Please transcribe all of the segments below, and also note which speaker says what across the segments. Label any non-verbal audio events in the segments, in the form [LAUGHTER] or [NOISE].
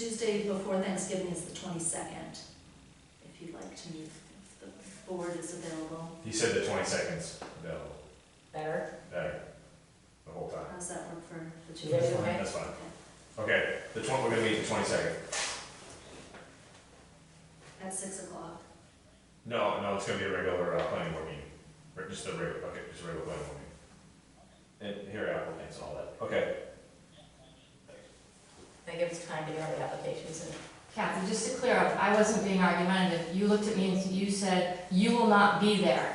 Speaker 1: Tuesday before Thanksgiving is the twenty-second, if you'd like to meet, if the board is available.
Speaker 2: He said the twenty seconds available,
Speaker 3: Better?
Speaker 2: better, the whole time.
Speaker 1: How's that work for the two?
Speaker 3: That's
Speaker 1: of you?
Speaker 3: fine.
Speaker 2: That's fine.
Speaker 1: Okay.
Speaker 2: Okay, the twen, we're gonna meet the twenty second.
Speaker 1: At six o'clock.
Speaker 2: No, no, it's gonna be a regular, uh, planning board meeting, Re- just a regular, okay, just a regular planning board meeting. And here are applicants and all that, okay.
Speaker 3: That gives time to get all the applications and
Speaker 4: Kathy, just to clear up, I wasn't being argumentative. You looked at me and you said, "You will not be there."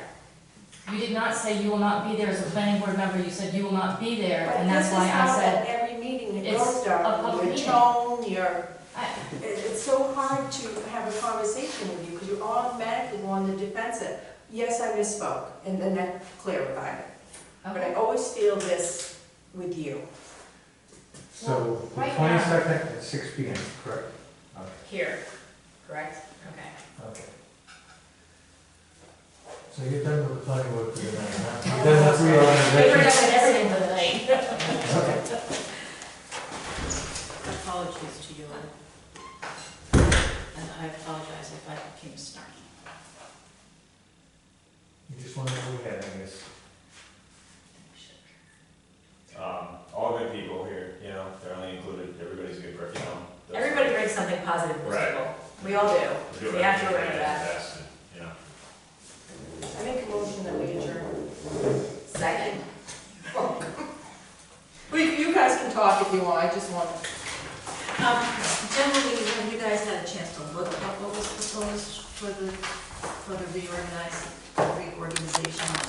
Speaker 4: You did not say, "You will not be there" as a planning board member. You said, "You will not be there," and that's why I said,
Speaker 5: But this is how at every meeting it
Speaker 4: It's
Speaker 5: goes,
Speaker 4: a public
Speaker 5: Darrell, your
Speaker 4: meeting.
Speaker 5: tone, your,
Speaker 4: I-
Speaker 5: it- it's so hard to have a conversation with you because you automatically go on the defensive. Yes, I misspoke, and then that clarified it. But I
Speaker 4: okay.
Speaker 5: always feel this with you.
Speaker 6: So the
Speaker 4: Right now.
Speaker 6: twenty-second at six P M, correct?
Speaker 3: here, correct? Okay.
Speaker 6: Okay. So you're done with the planning board for the night, huh? You're done with
Speaker 3: We heard that
Speaker 6: reorganization?
Speaker 3: with everything for the night.
Speaker 6: Okay.
Speaker 7: [LAUGHS] Apologies to you, and I apologize if I became snarky.
Speaker 6: You just want to move ahead, I guess.
Speaker 2: Um, all good people here, you know, they're only included, everybody's a good, per- you know. that's-
Speaker 3: Everybody brings something positive to the
Speaker 2: Right.
Speaker 3: table. We all do.
Speaker 2: We'll do
Speaker 3: We have to
Speaker 2: everything
Speaker 3: remember
Speaker 2: can
Speaker 3: that.
Speaker 2: best and, You know,
Speaker 5: I make a motion that we adjourn.
Speaker 3: Second.
Speaker 5: Well, you- you guys can talk if you want, I just want
Speaker 7: Um, Generally, have you guys had a chance to look up what was proposed for the, for the reorganize, reorganization of